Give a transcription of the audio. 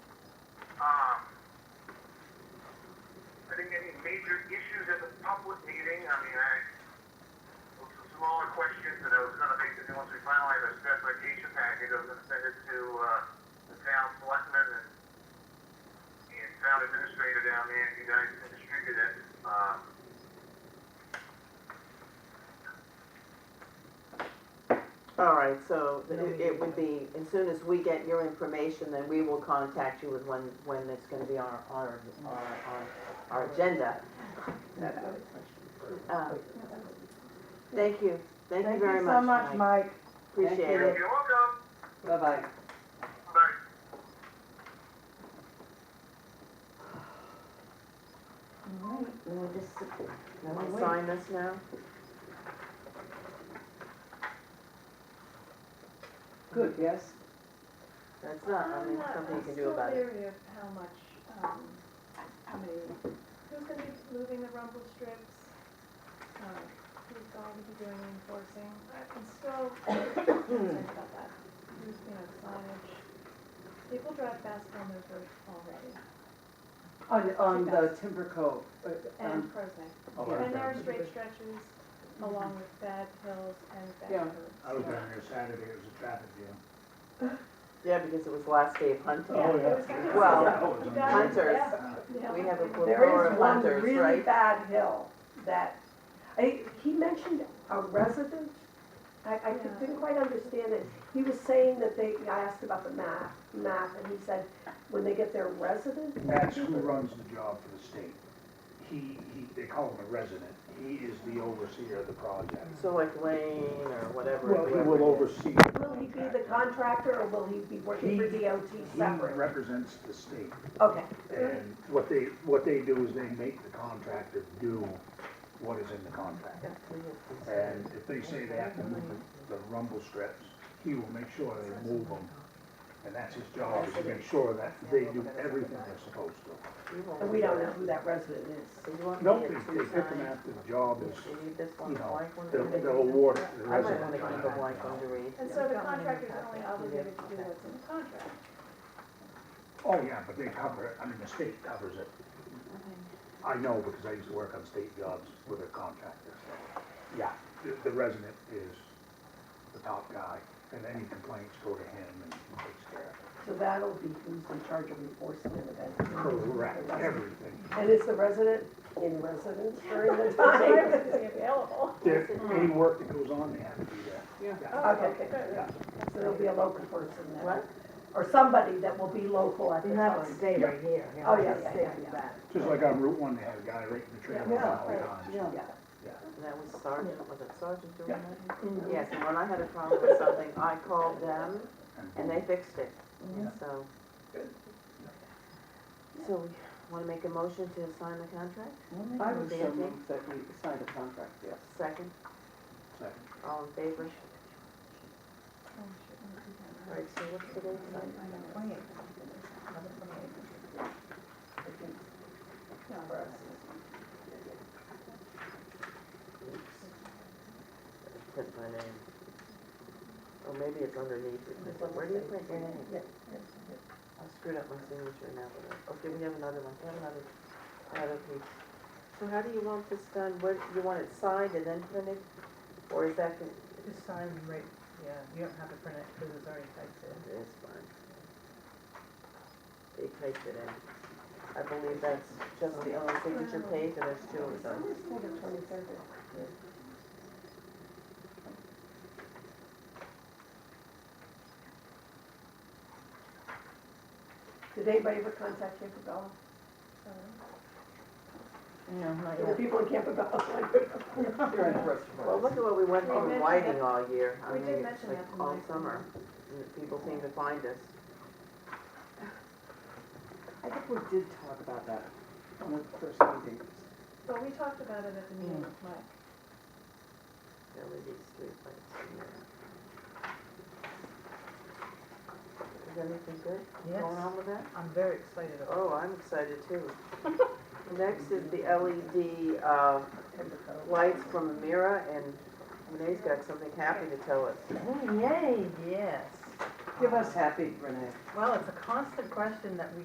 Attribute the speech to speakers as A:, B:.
A: Um, major issues at the public meeting. I mean, I, with some smaller questions that I was gonna make, and then once we finalize our specification package, I was gonna send it to, uh, the town selectmen and, and town administrator down there, if you guys can distribute it, um.
B: All right, so
C: No,
B: it
C: we
B: it
C: don't.
B: would be, as soon as we get your information, then we will contact you with when, when it's gonna be on our, on our, on our, our agenda. Uh, Thank you, thank you very much.
C: so much,
B: Mike.
C: Mike.
B: Appreciate
C: Thank
B: it.
A: You're welcome.
C: Bye-bye.
A: Bye.
D: All right, we'll just sit there.
B: Can
D: Wait.
B: we sign this now?
C: Good, yes?
B: That's not, I mean, something you can do about it.
E: I'm still leery of how much, um, how many, who's gonna be moving the rumble strips? Um, Who's going to be doing the enforcing? I'm still concerned about that. Who's, you know, signage. People drive fast on their first
C: On,
E: already,
C: on the Timber Cove. uh,
E: and
C: um,
E: Prozac.
F: Oh,
C: Yeah.
F: I
E: And there are
F: found it.
E: straight stretches along with bad hills and bad
C: Yeah.
E: curves.
F: I was down there Saturday, it was a traffic jam.
B: Yeah, because it was last day of hunting.
E: Yeah,
F: Oh,
E: it was kind of-
B: Well,
F: That was amazing.
B: Hunters,
F: Uh,
E: Yeah.
B: we have a plethora
G: There
B: of
G: is one
B: hunters,
G: really
B: right?
G: bad hill that, I, he mentioned a resident. I, I
E: Yeah.
G: didn't quite understand it. He was saying that they, I asked about the map, map, and he said, when they get their resident.
F: That's who runs the job for the state. He, he, they call him a resident. He is the overseer of the project.
B: So like Lane or whatever.
F: Well, he
B: whoever
F: will
B: it is.
F: oversee.
G: Will he be the contractor or will he be working for
F: He-
G: DOT
F: He
G: separate?
F: represents the state,
G: Okay,
F: and what they, what they do is they make the contractor do what is in the contract. And if they say they have to move the the rumble strips, he will make sure they move them. And that's his job, is to make sure that they do everything they're supposed to.
B: You won't
G: and we don't
B: do
G: know
B: that.
G: who that resident is.
B: So you want
F: No,
B: me to
F: they, they pick them
B: sign?
F: after the job is,
B: You need this one,
F: you know,
B: blank one?
F: they'll, they'll award it to the
B: I might wanna
F: resident.
B: keep a blank one to read.
E: And so the contractor's only obligated to do what's in the contract.
F: Oh, yeah, but they cover it, I mean, the state covers it. I know, because I used to work on state jobs with a contractor, so, yeah, the, the resident is the top guy, and any complaints go to him and he takes care
G: So that'll be who's in charge of enforcement of that.
F: of it. Correct, everything.
G: And is the resident in residence during the
E: So I was
G: time?
E: just available.
F: There, any work that goes on, they have to do that. Yeah.
E: Oh,
G: Okay.
E: good.
G: So there'll be a local person then.
B: What?
G: Or somebody that will be local at the
C: You have
G: time.
C: to stay right here. you know,
G: Oh, yeah,
C: just
G: yeah,
C: stay
G: yeah,
C: with
G: yeah.
C: that.
F: Just like on Route One, they have a guy right in the trailer all the time.
C: Yeah,
G: Yeah.
B: And that was Sergeant, was it Sergeant doing
F: Yeah.
B: that? Yes, and when I had a problem with something, I called them and they fixed it,
F: Yeah.
B: so. So, we wanna make a motion to sign the contract?
C: I would so
B: Nancy?
C: move that we sign the contract, yes.
B: Second,
F: Second.
B: all in favor?
E: Oh, shit, I'm gonna do that.
B: All right, so what's today's date? Print my name. Or maybe it's underneath it, Is it- where do you print your name? I screwed up my signature now, but, I- okay, we have another one, we have another, another piece. So how do you want this done, what, you want it signed and then printed, or is that, con- oh,
H: Just sign right, yeah, you don't have to print it because it's already typed in.
B: it's fine. They typed it in, I believe that's just the only signature page, and there's two of them.
G: Did anybody ever contact Campobello?
C: No, not
G: The people in Campobello.
B: Well, look at what we went
E: We
B: through
E: mentioned
B: whiting
E: that-
B: all year, I
E: we
B: mean,
E: did
B: it's
E: mention
B: like
E: that to
B: all
E: Mike.
B: summer, and people seem to find us.
C: I think we did talk about that on the first meeting.
E: But we talked about it at the meeting with Mike.
B: LED streetlights. Is anything good
H: Yes,
B: going on with that?
H: I'm very excited about
B: Oh, I'm excited too. Next is the LED, uh, lights from Amira, and Renee's got something happy to tell us.
C: Oh,
H: it. Yay, yes.
C: Give us happy, Renee.
H: Well, it's a constant question that we